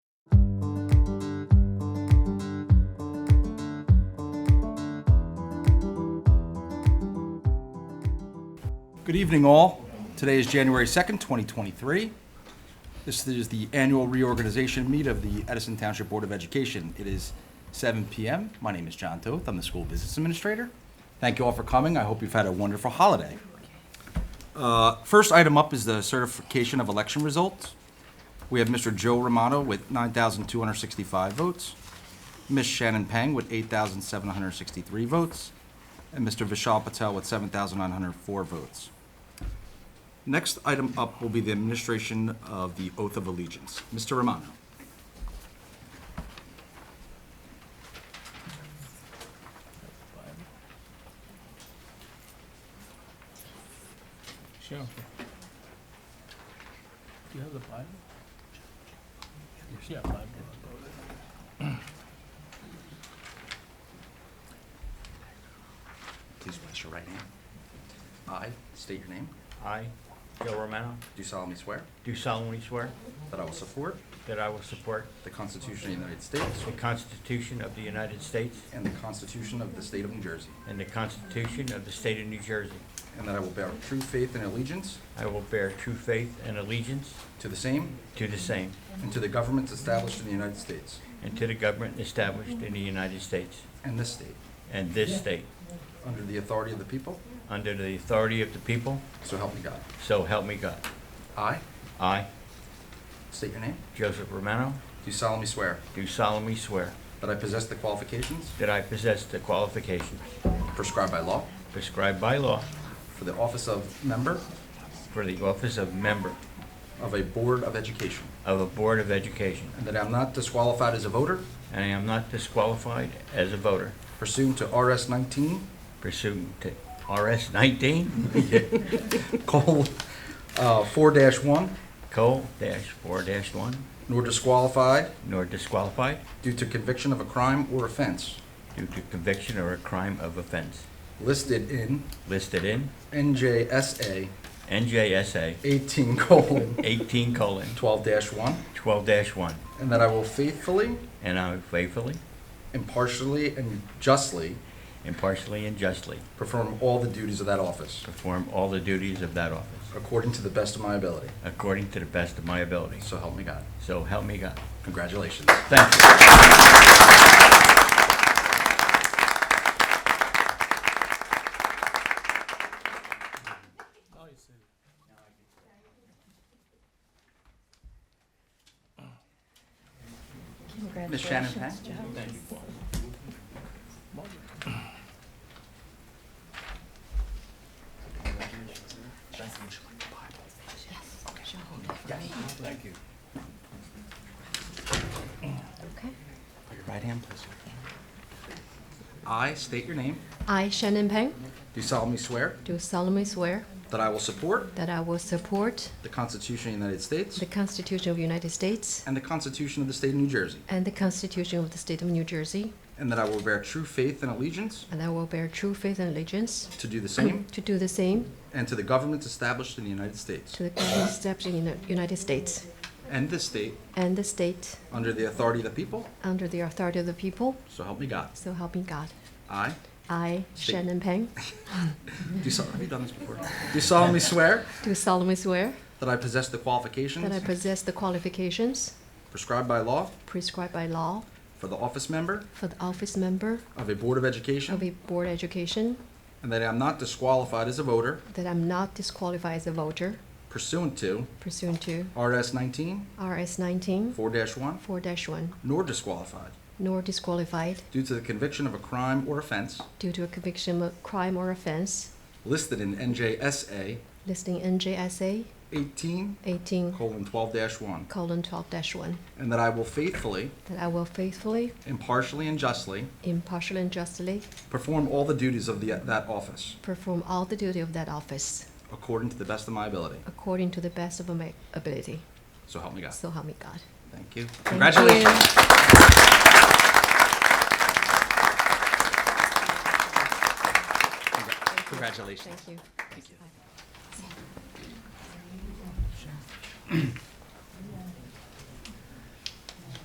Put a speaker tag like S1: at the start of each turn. S1: Good evening, all. Today is January 2nd, 2023. This is the annual reorganization meet of the Edison Township Board of Education. It is 7 PM. My name is John Toth. I'm the school business administrator. Thank you all for coming. I hope you've had a wonderful holiday. Uh, First item up is the certification of election results. We have Mr. Joe Romano with 9,265 votes, Ms. Shannon Pang with 8,763 votes, and Mr. Vishal Patel with 7,904 votes. Next item up will be the administration of the oath of allegiance. Mr. Romano.
S2: Sure. Do you have the Bible? Yeah, Bible.
S1: Please raise your right hand. I state your name.
S3: I, Joe Romano,
S1: Do solemnly swear
S3: do solemnly swear
S1: that I will support
S3: that I will support
S1: the Constitution of the United States
S3: the Constitution of the United States
S1: and the Constitution of the State of New Jersey,
S3: and the Constitution of the State of New Jersey.
S1: and that I will bear true faith and allegiance
S3: I will bear true faith and allegiance
S1: to the same
S3: to the same
S1: and to the governments established in the United States
S3: and to the government established in the United States
S1: and this state,
S3: and this state,
S1: under the authority of the people,
S3: under the authority of the people,
S1: so help me God.
S3: so help me God.
S1: I
S3: I,
S1: state your name.
S3: Joseph Romano,
S1: Do solemnly swear
S3: do solemnly swear
S1: that I possess the qualifications
S3: that I possess the qualifications
S1: prescribed by law
S3: prescribed by law
S1: for the office of member
S3: for the office of member
S1: of a Board of Education,
S3: of a Board of Education.
S1: and that I am not disqualified as a voter
S3: and I am not disqualified as a voter
S1: pursuant to RS 19,
S3: pursuant to RS 19,
S1: call uh, 4-1,
S3: Cole dash 4 dash 1,
S1: nor disqualified
S3: nor disqualified
S1: due to conviction of a crime or offense
S3: due to conviction or a crime of offense
S1: listed in
S3: listed in
S1: NJSA
S3: NJSA
S1: 18 colon
S3: 18 colon
S1: 12-1,
S3: 12 dash 1,
S1: and that I will faithfully,
S3: and I will faithfully,
S1: impartially, and justly
S3: impartially, and justly
S1: perform all the duties of that office
S3: perform all the duties of that office
S1: according to the best of my ability.
S3: according to the best of my ability.
S1: So help me God.
S3: So help me God.
S1: Congratulations.
S3: Thank you.
S1: Ms. Shannon
S4: Congratulations,
S1: Pack?
S4: Joe. Yes, Joe, hold it for me.
S2: Thank you.
S4: Okay.
S1: Put your right hand, please. I state your name.
S4: I, Shannon Peng,
S1: Do solemnly swear
S4: do solemnly swear
S1: that I will support
S4: that I will support
S1: the Constitution of the United States
S4: the Constitution of the United States
S1: and the Constitution of the State of New Jersey,
S4: and the Constitution of the State of New Jersey,
S1: and that I will bear true faith and allegiance
S4: and I will bear true faith and allegiance
S1: to do the same
S4: to do the same
S1: and to the governments established in the United States
S4: to the government established in the United States
S1: and this state
S4: and the state
S1: under the authority of the people,
S4: under the authority of the people,
S1: so help me God.
S4: so help me God.
S1: I
S4: I,
S1: State.
S4: Shannon Peng,
S1: do sol- have you done this before? Do solemnly swear
S4: do solemnly swear
S1: that I possess the
S4: that I
S1: qualifications
S4: possess the qualifications
S1: prescribed by law
S4: prescribed by law
S1: for the office member
S4: for the office member
S1: of a Board of
S4: of
S1: Education,
S4: a board education
S1: and that I am not disqualified as a voter
S4: that I'm not disqualified as a voter
S1: pursuant to
S4: pursuant to
S1: RS 19
S4: RS 19
S1: 4-1,
S4: 4-1,
S1: nor disqualified
S4: nor disqualified
S1: due to the conviction of a crime or offense
S4: due to a conviction of crime or offense
S1: listed in NJSA
S4: listed in NJSA
S1: 18
S4: 18
S1: 12-1,
S4: colon 12-1,
S1: and that I will faithfully,
S4: that I will faithfully,
S1: impartially, and justly
S4: impartially, and justly
S1: perform all the duties of the, that office
S4: perform all the duty of that office
S1: according to the best of my ability.
S4: according to the best of my ability.
S1: So help me God.
S4: So help me God.
S1: Thank you.
S4: Thank
S1: Congratulations.
S4: you.
S1: Congratulations.
S4: Thank you.
S1: Thank you.